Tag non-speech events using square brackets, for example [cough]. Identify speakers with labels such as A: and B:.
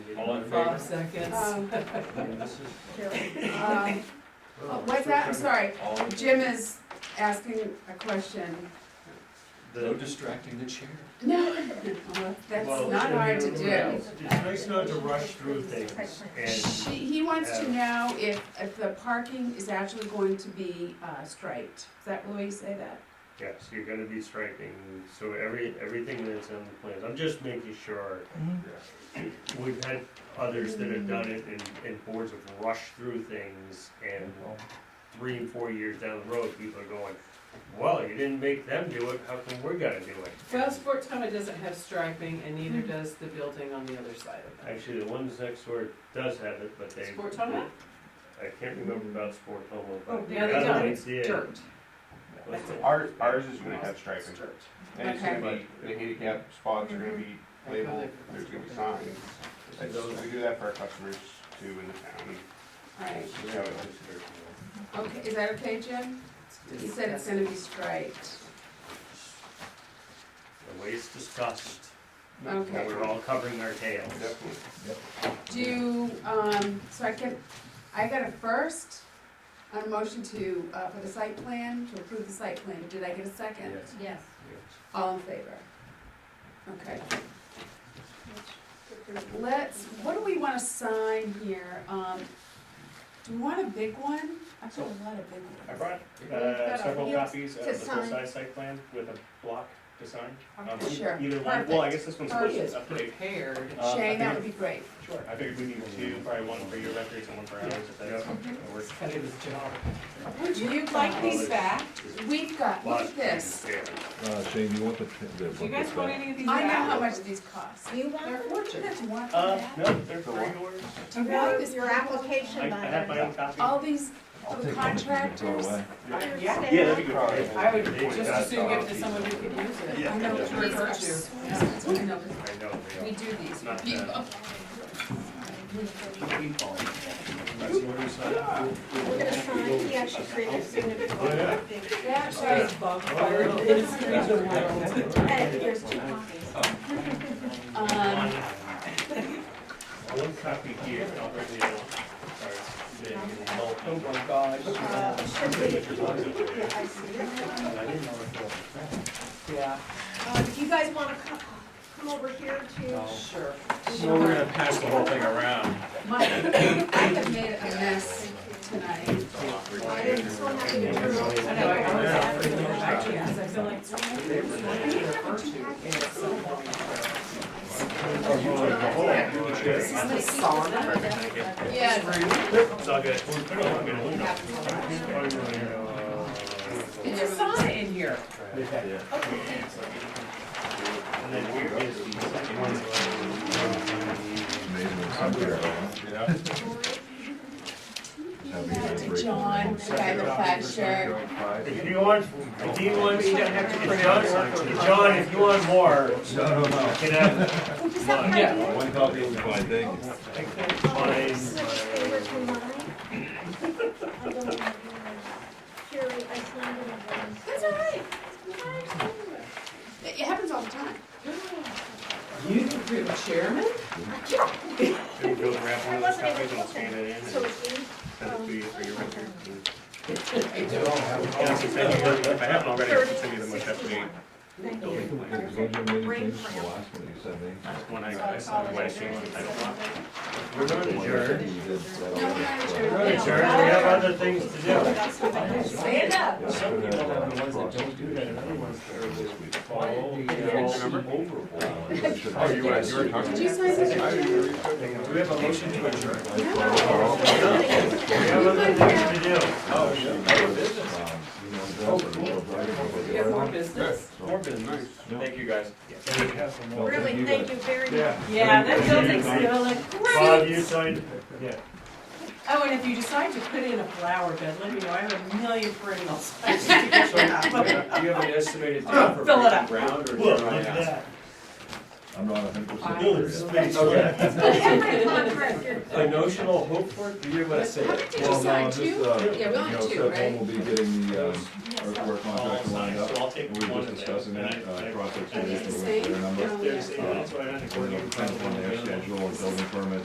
A: All in
B: Five
A: favor?
B: seconds.
C: Um, um, oh, What's that, I'm sorry,
A: All in-
C: Jim is asking a question.
A: No distracting the chair.
C: No, [laughs] that's
D: Well,
C: not
D: I
C: hard to
D: mean,
C: do.
D: It's it's nice not to rush through things, and
C: She, he wants to know if, if the parking is actually going to be, uh, striped. Is that the way you say that?
D: yes, you're gonna be striking, so every, everything that's on the plans, I'm just making sure. We've had others that have done it, and, and boards have rushed through things, and three and four years down the road, people are going, well, you didn't make them do it, how come we're gonna do it?
B: Well, Sportoma doesn't have striping and neither does the building on the other side of it.
D: Actually, the ones next door does have it, but they.
B: Sportoma?
D: I can't remember about Sportoma,
C: Oh,
D: but the
B: Yeah, they
D: other
B: don't,
D: one
B: it's
D: did.
B: dirt.
D: What's it?
E: Ours, ours is gonna have
B: It's
E: striping,
B: dirt.
E: and it's gonna be, the handicap spots are gonna be labeled, there's gonna be signs. And those, we do that for our customers too in the town,
C: All
E: and
C: right,
E: it's just how it is.
C: okay, is that okay, Jim? He said it's gonna be striped.
D: The way it's discussed,
C: Okay.
D: we're all covering our tails.
E: Definitely.
F: Uh,
C: Do, um, so I can, I got a first on a motion to, uh, for the site plan, to approve the site plan. Did I get a second?
A: Yes.
G: Yes.
C: All in favor? Okay. Let's, what do we wanna sign here? Um, do we want a big one? I've got a lot of big ones.
F: I brought
C: We've
F: uh,
C: got a-
F: several
C: yes,
F: copies of
C: to
F: the
C: sign.
F: full-size site plan with a block to sign. Um,
C: Okay,
F: e-
C: Sure,
F: Either one, well, I
C: perfect.
F: guess this one's
B: He
F: supposed
B: is
F: to update.
B: prepared.
F: Uh, I
C: Shane, that would
F: figured-
C: be great.
F: Sure, I figured we needed two, probably one for your records and one for ours, if that's. that works.
B: Kind of his job.
C: Would you like these back? We've got, look at this.
D: Yeah.
H: Uh, Shane, you want the, the
B: Do you guys
H: booklet
B: want
H: back?
B: any of these
C: I know how
B: back?
C: much these cost.
G: You
C: They're
G: want
C: fortunate. One for
F: Uh,
C: that.
F: no, they're
E: The
F: for
E: what?
F: yours.
C: To walk
G: No,
C: this
G: your
C: application.
F: I I
G: application
F: have my
G: letter.
F: own copy.
C: all these
H: I'll take one if you can throw
C: contractors.
H: away.
F: Yeah.
B: Yeah.
F: Yeah, that'd be
E: Probably.
F: good.
B: I would
D: They've
B: just
D: got
B: as soon give it to
D: copies.
B: someone who could use it.
F: Yeah.
C: I know,
B: Yeah.
C: these are so expensive. I know,
D: I know
C: but we
D: they
C: do these.
D: are. Not
C: You-
D: that. uh,
G: We're gonna sign, he actually created a signature. on
D: Yeah.
G: it.
C: That
B: Yeah.
C: shows,
G: Hey, there's two copies.
C: um,
D: One copy here, I'll bring the other one.
F: Oh my gosh.
G: Uh, it should be-
D: Sorry. Then
G: yeah, I see it.
B: Yeah,
G: Uh, do you guys wanna come, come over here to?
B: sure.
F: So we're gonna pass the whole thing around.
C: my, I have made a mess tonight.
G: I didn't, so I'm happy to turn over.
B: I know, I always have to go back to you, 'cause I feel like it's one of the things that you refer to, and it's so long.
D: It's
B: Is this a sauna?
C: Yeah.
D: all good. Put it on, get a window.
B: It's a sauna in here.
D: And then here is the second one.
H: Amazing, some people,
E: Yeah.
H: how big that break
C: To
H: is.
C: John, the guy in the plaid shirt.
D: If you want, if you want, me to have to print out, John, if you want more,
H: No, no, no.
D: get out.
B: Yeah.
H: One copy will be fine, thank you.
D: I can't find
G: Six favors for
D: my-
G: mine. I don't have yours. Jerry, I signed it. on yours.
C: That's all right. It happens all the time.
B: You think you're the chairman?
D: Then go grab one of those
G: I wasn't able to
D: copies and
G: look
D: scan
G: at
D: it in and
G: So
D: send
G: it's in.
D: it to you for your record.
F: Yeah, so send me the- If I haven't already, I should send you the most up-to-date
G: Thank you.
F: building plan.
H: Those are many things, the last one you sent me.
F: That's one I, I saw when I changed the title block.
D: We're not
H: The one you
D: adjourned.
H: did set
C: No, we're
H: up.
C: not
D: We're not
C: sure.
D: adjourned, we have other things to do.
B: Stand up.
H: Yeah, so that- that should-
E: Oh, you, uh, you were talking?
C: Did you sign this?
F: Do we have a motion to adjourn?
D: We have other things to do.
B: You have more business?
E: Nice.
F: Thank you,
B: [laughs]
F: guys.
G: Really, thank you very much.
B: Yeah, that building's still like
D: Bob,
B: great.
D: you signed, yeah.
B: Oh, and if you decide to put in a flower bed, let me know, I have a million perennials. [laughs] I just need to get one.
F: Do you have an estimated date for
B: Fill it
F: breaking
B: up.
F: ground or?
D: Look, look at that.
H: I'm not a hundred percent
D: Building
H: sure yet.
D: space left.
G: Every contractor.
F: A notional hope for it? Do you hear what I said?
C: How many did you
H: Well, no,
C: sign?
H: just,
C: Two?
H: uh,
C: Yeah, we only
H: you know,
C: have two,
H: step one
C: right?
H: will be getting the, um,
G: Yes, sir.
H: earthwork contract lined up.
F: So I'll
H: We
F: take one
H: were just
F: of them.
H: discussing
F: and
H: that,
F: I-
H: uh,
F: I-
H: project,
C: Are these the
H: with their
D: Uh,
C: same?
H: number.
C: Oh, yeah.
D: There's, that's why I
H: Depends on their schedule, and building permit,